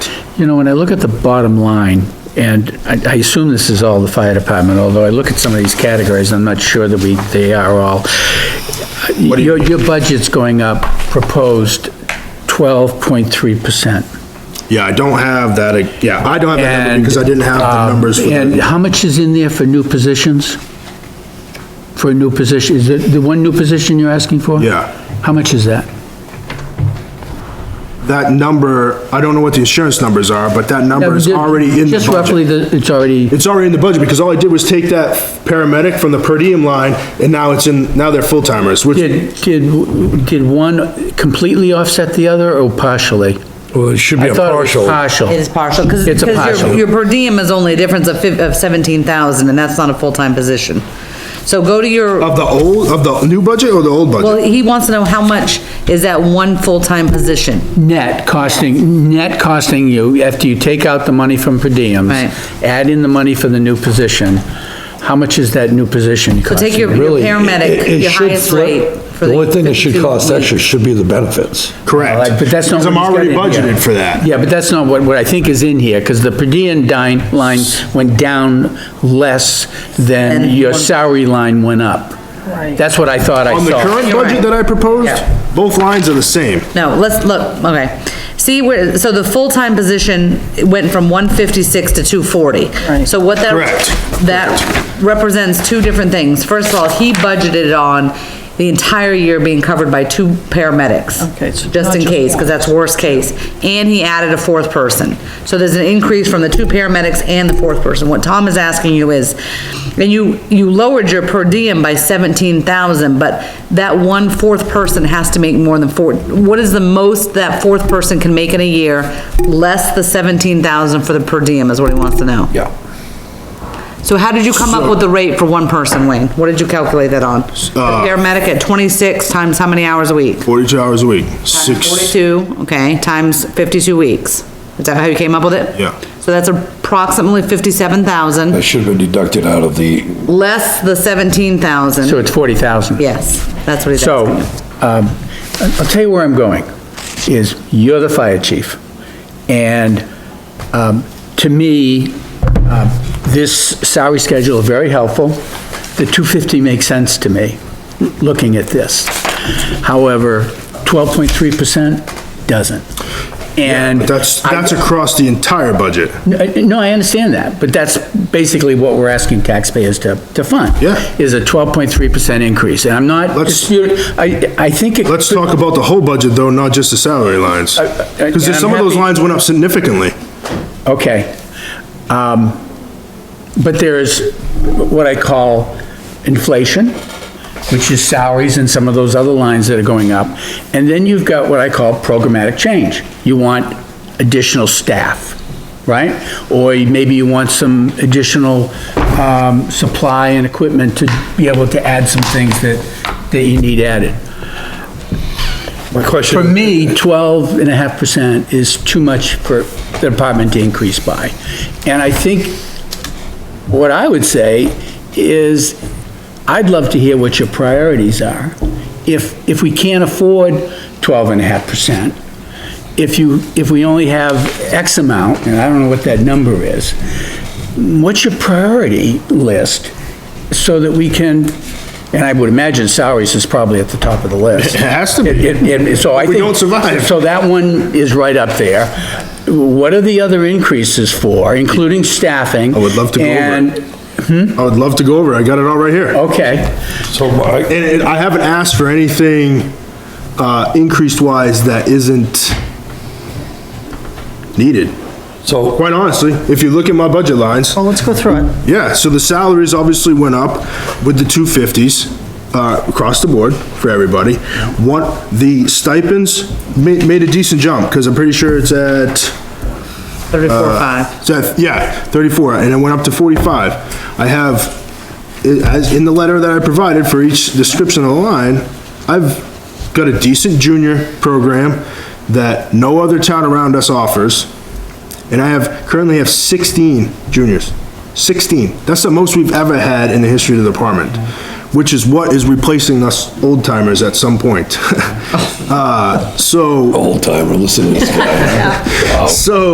You know, when I look at the bottom line, and I I assume this is all the fire department, although I look at some of these categories, I'm not sure that we, they are all. Your, your budget's going up, proposed 12.3%. Yeah, I don't have that, uh, yeah, I don't have that number And, because I didn't have the um, numbers for And the how much is in there for new positions? For a new position, is it the one new position you're asking for? Yeah. How much is that? That number, I don't know what the insurance numbers are, but that number is Yeah, already in the Just roughly, budget. the- it's already, It's already in the budget because all I did was take that paramedic from the per diem line and now it's in, now they're full timers, which, did, did, did one completely offset the other or partially? Well, it should be I a thought it was partial. partial. It is partial, because, It's a partial. your, your per diem is only a difference of fif, of seventeen thousand, and that's not a full-time position. So go to your, of the old, of the new budget or the old budget? well, he wants to know how much is that one full-time position? Net costing, net costing you, after you take out the money from per diems, Right. add in the money for the new position, how much is that new position So costing? take your your Really, it- it paramedic, your should highest flip. rate. for The only thing that 52 should cost weeks. extra should be the benefits. Correct. Like, But that's not. Because I'm what he's already got in here. budgeted for that. Yeah, but that's not what, what I think is in here, because the per diem dine, line went down less than And your one- salary line went up. Right. That's what I thought I On the saw. current You're budget right. that I proposed, Yeah. both lines are the same. No, let's look, okay. See where, so the full-time position went from one fifty-six to two forty. So what that. Correct. That represents two different things. First of all, he budgeted on the entire year being covered by two paramedics. Okay, so Just not in just case, one. because that's worst case. And he added a fourth person. So there's an increase from the two paramedics and the fourth person. What Tom is asking you is, and you, you lowered your per diem by seventeen thousand, but that one fourth person has to make more than four, what is the most that fourth person can make in a year, less the seventeen thousand for the per diem is what he wants to know. Yeah. So how did you come up with the rate for one person, Wayne? What did you calculate that on? Uh, The Paramedic at twenty-six times how many hours a week? Forty-two hours a week, six, Forty-two, okay, times fifty-two weeks. Is that how you came up with it? Yeah. So that's approximately fifty-seven That thousand, should have been deducted out of the, less the seventeen So thousand. it's forty thousand. Yes, that's what he's So, asking. um, I- I'll tell you where I'm going, is you're the fire chief. And, um, to me, um, this salary schedule is very helpful. The 250 makes sense to me, looking at this. However, 12.3% doesn't. And. but that's, I- that's across the entire budget. N- No, I understand that, but that's basically what we're asking taxpayers to, to fund. Yeah. Is a 12.3% increase, and I'm not, Let's- disputing- I, I think it. Let's talk about the whole budget though, not just the salary lines. I- I- Because and I'm some of those happy- lines went up significantly. Okay. Um, But there is what I call inflation, which is salaries and some of those other lines that are going up. And then you've got what I call programmatic change. You want additional staff, right? Or maybe you want some additional um, supply and equipment to be able to add some things that, that you need added. My For question, me, twelve and a half percent is too much for the department to increase by. And I think what I would say is, I'd love to hear what your priorities are. If, if we can't afford twelve and a half percent, if you, if we only have X amount, and I don't know what that number is, what's your priority list? So that we can, and I would imagine salaries is probably at the top of the list. It has to be. It- it- it- so I We think. don't survive. So that one is right up there. What are the other increases for, including staffing? I would love to go over it. And, I would love to go over, it. I got it all right here. okay, so I, And and I haven't asked for anything, uh, increased wise that isn't needed. so Quite honestly, if you look at my budget lines, Well, let's go through it. yeah, so the salaries obviously went up with the two fifties, uh, across the board for everybody. One, the stipends made, made a decent jump, cause I'm pretty sure it's at, Thirty-four, five. Uh, So, if- yeah, 34, and it went up to 45. I have, i- as in the letter that I provided for each description of the line, I've got a decent junior program that no other town around us offers, and I have, currently have 16 juniors. 16. That's the most we've ever had in the history of the department, which is what is replacing us old timers at some point. Uh, so, old timer, listen to this guy. so